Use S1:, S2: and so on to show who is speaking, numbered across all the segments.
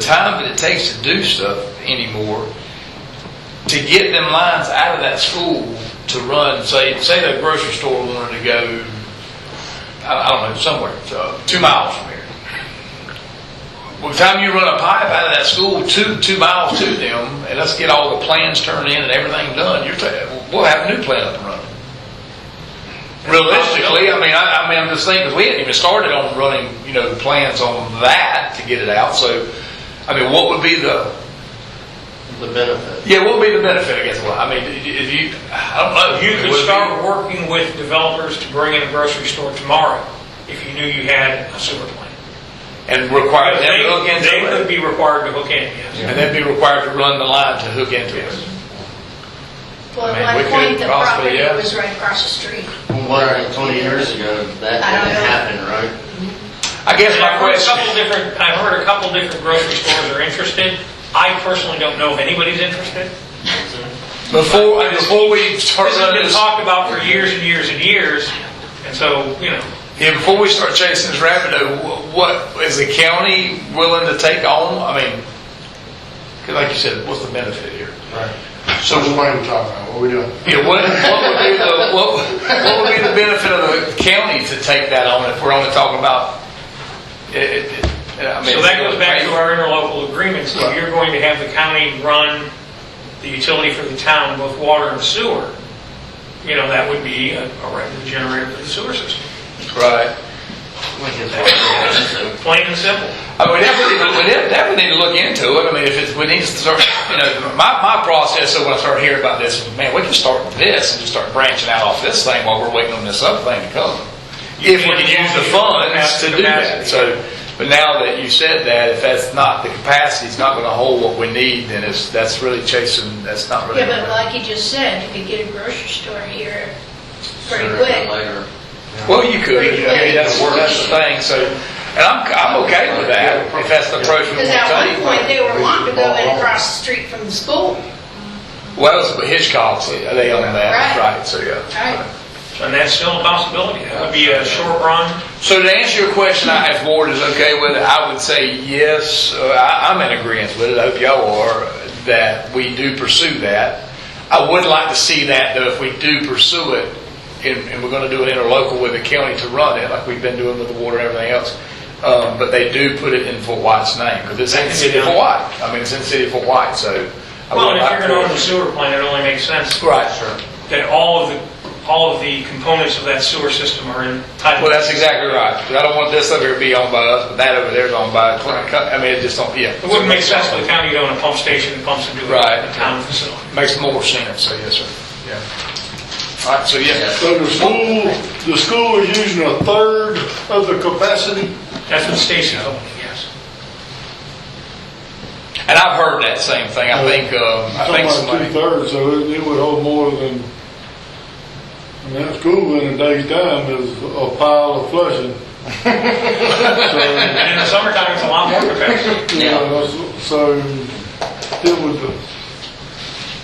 S1: time that it takes to do stuff anymore, to get them lines out of that school to run, say, say the grocery store wanted to go, I, I don't know, somewhere, uh, two miles from here. By the time you run a pipe out of that school, two, two miles to them, and let's get all the plans turned in and everything done, you're, ta- we'll have a new plan up and running. Realistically, I mean, I, I mean, I'm just thinking, 'cause we hadn't even started on running, you know, plans on that to get it out, so, I mean, what would be the,
S2: the benefit.
S1: yeah, what would be the benefit, I guess, well, I mean, if you, I don't know.
S3: You
S1: Would
S3: could
S1: Oh, it be-
S3: start working with developers to bring in a grocery store tomorrow if you knew you had a sewer plant.
S1: And require them
S3: They
S1: to hook
S3: they
S1: into
S3: would
S1: it.
S3: be required to hook in, yes.
S1: And they'd be required to run the line to hook into it.
S4: Well,
S1: I mean,
S4: at
S1: we
S4: one point,
S1: could
S4: the
S1: possibly,
S4: property
S1: yeah.
S4: was right across the street.
S2: Well, 20 years ago, that
S4: I
S2: didn't
S4: don't know.
S2: happen, right?
S1: I guess
S3: And
S1: my
S3: I've heard a
S1: question,
S3: couple different, I've heard a couple different grocery stores are interested. I personally don't know if anybody's interested.
S1: before, before we start
S3: This has
S1: running
S3: been
S1: this,
S3: talked about for years and years and years, and so, you know,
S1: yeah, before we start chasing this rabbit, though, wh- what, is the county willing to take on? I mean, 'cause like you said, what's the benefit here?
S5: Right. So which one are we talking about? What are we doing?
S1: Yeah, what, what would be the, what, what would be the benefit of the county to take that on if we're only talking about, it, it, I mean.
S3: So that goes back to our interlocal agreement, so you're going to have the county run the utility for the town, both water and sewer. You know, that would be a a revenue generator for the sewer system,
S1: Right.
S2: Which is what it is, so.
S3: plain and simple.
S1: I mean, we definitely, we de- definitely need to look into it. I mean, if it's, we need to start, you know, my, my process, so when I start hearing about this, man, we can start with this and just start branching out off this thing while we're waiting on this other thing to come. If we can use the funds to do that, so, but now that you said that, if that's not, the capacity's not gonna hold what we need, then it's, that's really chasing, that's not really.
S4: Yeah, but like you just said, you could get a grocery store here pretty
S2: Sooner than
S4: quick.
S2: later.
S1: Well, you could, I mean, that's, that's the thing, so, and I'm, I'm okay with that, if that's the approach we
S4: Because
S1: wanna
S4: at
S1: take.
S4: one point, they were wanting to go in across the street from the school,
S1: Well, that was Hitchcock's, they own that,
S4: Right.
S1: right, so, yeah.
S4: right?
S3: And that's still a possibility, that would be a short run.
S1: So to answer your question, I- if Ward is okay with it, I would say yes, uh, I- I'm in agreement with it, I hope y'all are, that we do pursue that. I would like to see that, though, if we do pursue it, and, and we're gonna do an interlocal with the county to run it, like we've been doing with the water and everything else, um, but they do put it in Fort White's name, because it's in the city of Fort White, I mean, it's in the city of Fort White, so. I
S3: Well,
S1: would
S3: and if
S1: like
S3: you're
S1: to-
S3: gonna own the sewer plant, it only makes sense
S1: Right, sure.
S3: that all of the, all of the components of that sewer system are entitled.
S1: Well, that's exactly right. 'Cause I don't want this over here to be owned by us, but that over there is owned by, I mean, it just don't, yeah.
S3: It wouldn't make sense for the county to own a pump station that pumps into
S1: Right.
S3: a town facility.
S1: Makes more sense, so yes, sir. Yeah. All right, so yeah,
S5: So the school, the school is using a third of the capacity?
S3: That's what Stacy told me, yes.
S1: and I've heard that same thing. I think, um, I think somebody,
S5: Talking about two-thirds, so it it would hold more than, I mean, that school in a day's time is a pile of flushing. So,
S3: And in the summertime, it's a lot more capacity.
S5: you know, so it would,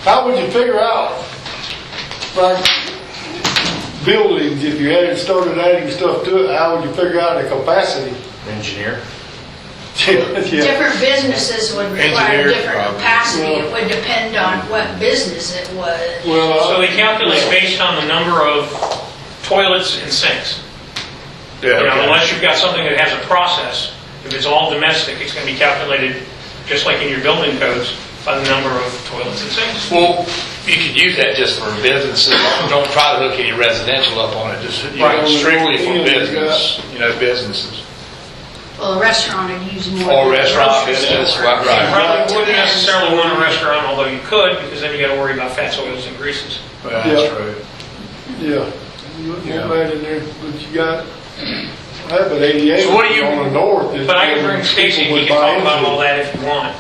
S5: how would you figure out, like, buildings, if you hadn't started adding stuff to it, how would you figure out the capacity?
S2: Engineer.
S5: Yeah, yeah.
S4: Different businesses would require
S1: Engineers,
S4: different
S1: probably.
S4: capacity. It would depend on what business it was.
S5: Well,
S3: So they calculate based on the number of toilets and sinks.
S1: yeah,
S3: You know,
S1: okay.
S3: unless you've got something that has a process, if it's all domestic, it's going to be calculated, just like in your building codes, by the number of toilets and sinks.
S1: Well, you could use that just for businesses. Don't try to hook any residential up on it, just, you know,
S5: Right.
S1: strictly for
S5: Yeah, you
S1: business, you know, businesses.
S4: Well, a restaurant would use more.
S1: Or
S4: than a
S1: restaurant
S4: grocery
S1: business,
S4: store.
S1: right,
S3: You
S1: right.
S3: probably wouldn't necessarily want a restaurant, although you could, because then you got to worry about fats, oils, and greases.
S1: Well, That's
S5: Yeah.
S1: true.
S5: Yeah, you look
S1: Yeah.
S5: right in there, but you got, I have an eighty-eight
S1: So what do you-
S5: on the north. is
S3: But I can
S5: where
S3: bring Stacy,
S5: people
S3: and he
S5: would
S3: can
S5: buy
S3: talk about
S5: into.
S3: all that if you want.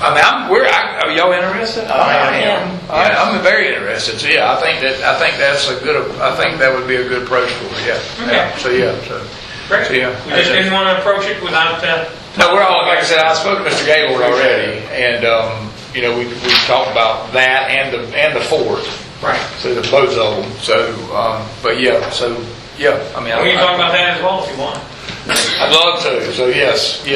S1: I mean, I'm, we're, I, are y'all interested? I am. I, I'm very interested, so yeah, I think that, I think that's a good, I think that would be a good approach for it, yeah.
S3: Okay.
S1: So, yeah, so.
S3: Great.
S1: Yeah.
S3: We just didn't want to approach it without, uh,
S1: No, we're all, like I said, I spoke to Mr. Gaylord already, and, um, you know, we, we talked about that and the, and the fort,
S3: right.
S1: so the both of them, so, um, but yeah, so, yeah, I mean,
S3: We can talk
S1: I-
S3: about that as well if you want.
S1: I'd love to, so yes, yeah.